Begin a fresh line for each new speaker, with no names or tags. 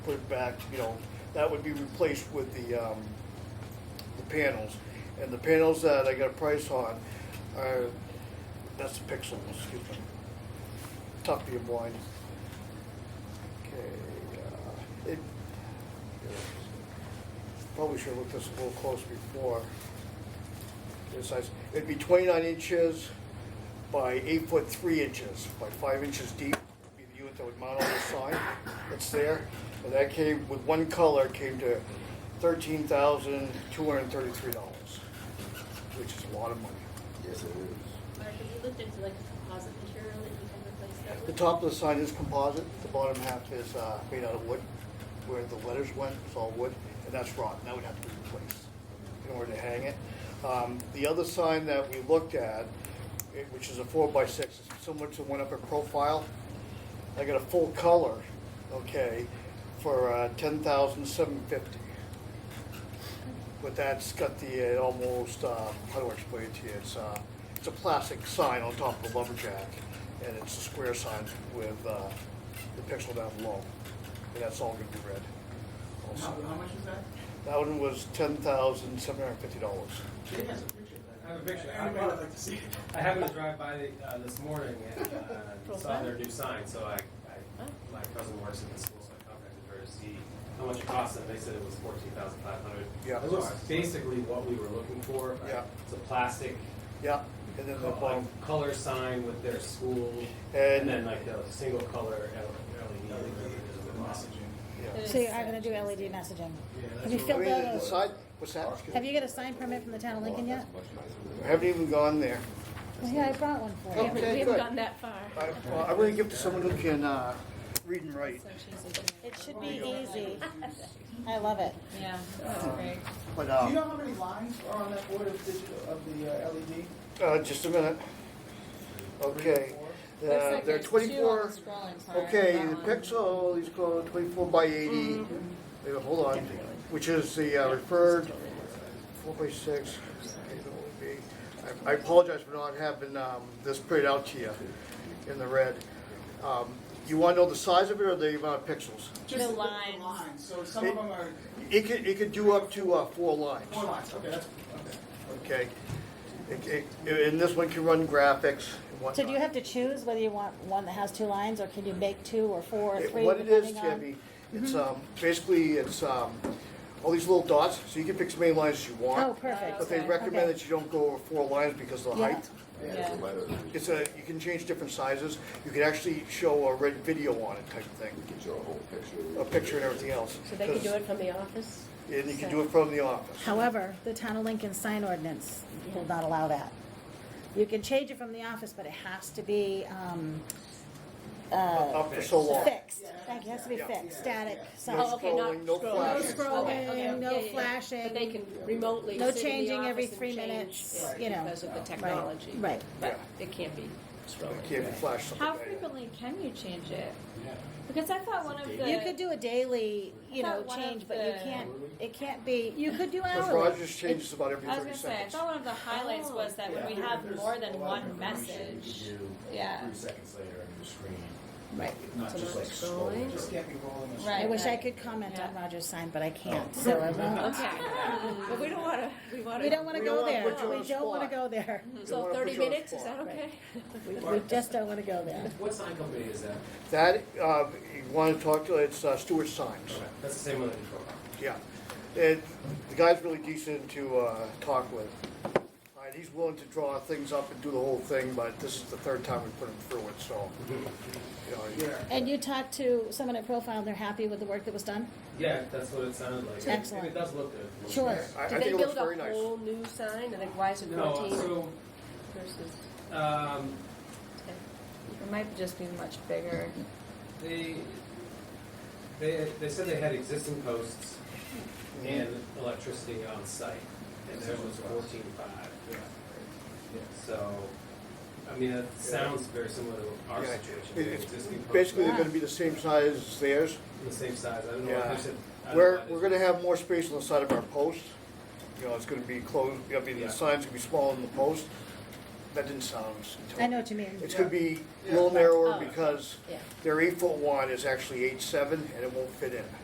put back, you know, that would be replaced with the, um, the panels. And the panels that I got a price on are, that's the pixels, excuse me. Tough being blind. Okay, uh, it, probably should have looked this a little close before. This size, it'd be twenty-nine inches by eight foot three inches, by five inches deep, would be the unit that would mount on the sign that's there. And that came, with one color, came to thirteen thousand two hundred and thirty-three dollars, which is a lot of money.
Yes, it is.
Mark, have you looked into like a composite material that you can replace that with?
The top of the sign is composite, the bottom half is uh, made out of wood, where the letters went, it's all wood, and that's rotten, that would have to be replaced in order to hang it. Um, The other sign that we looked at, it- which is a four by six, is similar to one up at Profile, I got a full color, okay, for uh, ten thousand seven fifty. But that's got the, uh, almost, uh, how do I explain it to you, it's, uh, it's a plastic sign on top of a lumberjack, and it's a square sign with, uh, the pixel down below, and that's all gonna be red.
How,
also.
how much is that?
That one was ten thousand seven hundred and fifty dollars.
Jay has a picture of that.
I have a picture. I bought it.
see it.
I happened to drive by uh, this morning and uh, saw their new sign, so I,
Oh.
I, my cousin works at the school, so I contacted her to see how much it cost, and they said it was fourteen thousand five hundred.
Yeah.
It was basically what we were looking for.
Yeah.
It's a plastic
Yeah, and then the
co-
bottom,
color sign with their school,
And-
and then like the single color E LED. or whatever it is on the bottom.
yeah.
So you're not gonna do LED messaging? Have you
I
filled
mean,
out
the
a,
side, what's that?
have you got a sign permit from the town of Lincoln yet?
I haven't even gone there.
Well, yeah, I brought one for you.
Okay,
We
good.
haven't gone that far.
I, well, I'm gonna give to someone who can, uh, read and write,
It should be easy. I love it.
Yeah, that's great.
but,
Do you
uh,
know how many lines are on that board of digital, of the uh, LED?
uh, just a minute. Okay, uh, there are twenty-four, okay, the pixel, he's called twenty-four by
Mm-hmm.
eighty, Wait, hold on, which is the uh, referred, four by six, okay, that would be, I- I apologize for not having, um, this printed out to you in the red. Um, You wanna know the size of it or the amount of pixels?
Just
The lines.
lines. So some of them are
It could, it could do up to, uh, four lines.
four lines. Okay, that's okay.
Okay. It- it- And this one can run graphics and whatnot.
So do you have to choose whether you want one that has two lines, or can you make two or four or
It-
three?
What it is,
depending on-
Tammy, it's, um, basically, it's, um, all these little dots, so you can pick as many lines as you want.
Oh, perfect.
But they
Okay,
recommend
okay.
that you don't go over four lines because of the
Yeah.
height.
Yeah,
Yeah.
it's a letter. You
It's a, you can change different sizes. You can actually show a red video on it type of thing,
can show a whole picture.
a picture and everything else.
So they can do it from the office?
And you can do it from the office.
However, the town of Lincoln sign ordinance will not allow that. You can change it from the office, but it has to be, um, uh,
Up for so long.
fixed. It has to be
Yeah.
fixed, static
No
Oh,
sign.
okay, not
scrolling, no
scroll.
No
flashing.
Okay, okay,
scrolling,
yeah,
no
yeah, yeah.
flashing.
But they can remotely
No
sit in the
changing every
office and
three
change
minutes,
it
you know.
Because of the technology.
Right.
But it can't be scrolling.
It can't be flashed. something
How
like that.
frequently can you change it? Because I thought one of the.
You could do a daily, you know,
But one of
change, but you
the-
can't, it can't be, you could do
Because
hourly.
Rogers changes about every
I was
thirty
gonna say, I
seconds.
thought one of the highlights
Oh.
was that when we have more than one message. Yeah.
Three seconds later on your screen,
Right.
not just like
It
scrolling.
just can't be rolling. a-
I
Right.
wish I could comment on
Yeah.
Roger's sign, but I
Oh.
can't, so I won't.
Okay. but we don't want to. We want to.
We don't wanna
We don't
go
wanna
there,
put you on
we
the
don't wanna
spot.
go there.
Don't
So
wanna
thirty
put you on the
minutes, is
spot.
that okay?
We we just don't wanna go there.
What sign company is that?
That, uh, you want to talk to, it's uh, Stuart Signs,
Okay, That's the same one that you drove by.
yeah. And the guy's really decent to uh, talk with. Uh, He's willing to draw things up and do the whole thing, but this is the third time we put him through it, so. you know,
Yeah.
And you talked to someone at Profile, and they're happy with the work that was done?
Yeah, that's what it sounded like. And
Excellent.
It does look good. It looks
Sure.
good.
I I
Did
think
they
it looks
build
very
a
nice.
whole new sign? And like, why is it
No,
fourteen
so
versus?
Um,
It might just be much bigger.
they, they, they said they had existing posts and electricity on site, and theirs was fourteen five. So, I mean, it sounds very similar to our
Yeah,
situation.
it-
The
it's
existing posts
Basically,
are
they're gonna be the same size as theirs.
The same size, I don't know
Yeah.
what they said. I don't know
We're,
why they-
we're gonna have more space on the side of our post. You know, it's gonna be closed, I mean, the
Yeah.
sign's gonna be smaller than the post. That didn't sound.
I know what you mean. Oh,
It's gonna be a little narrower because
Yeah.
their eight foot one is actually eight seven and it won't fit in.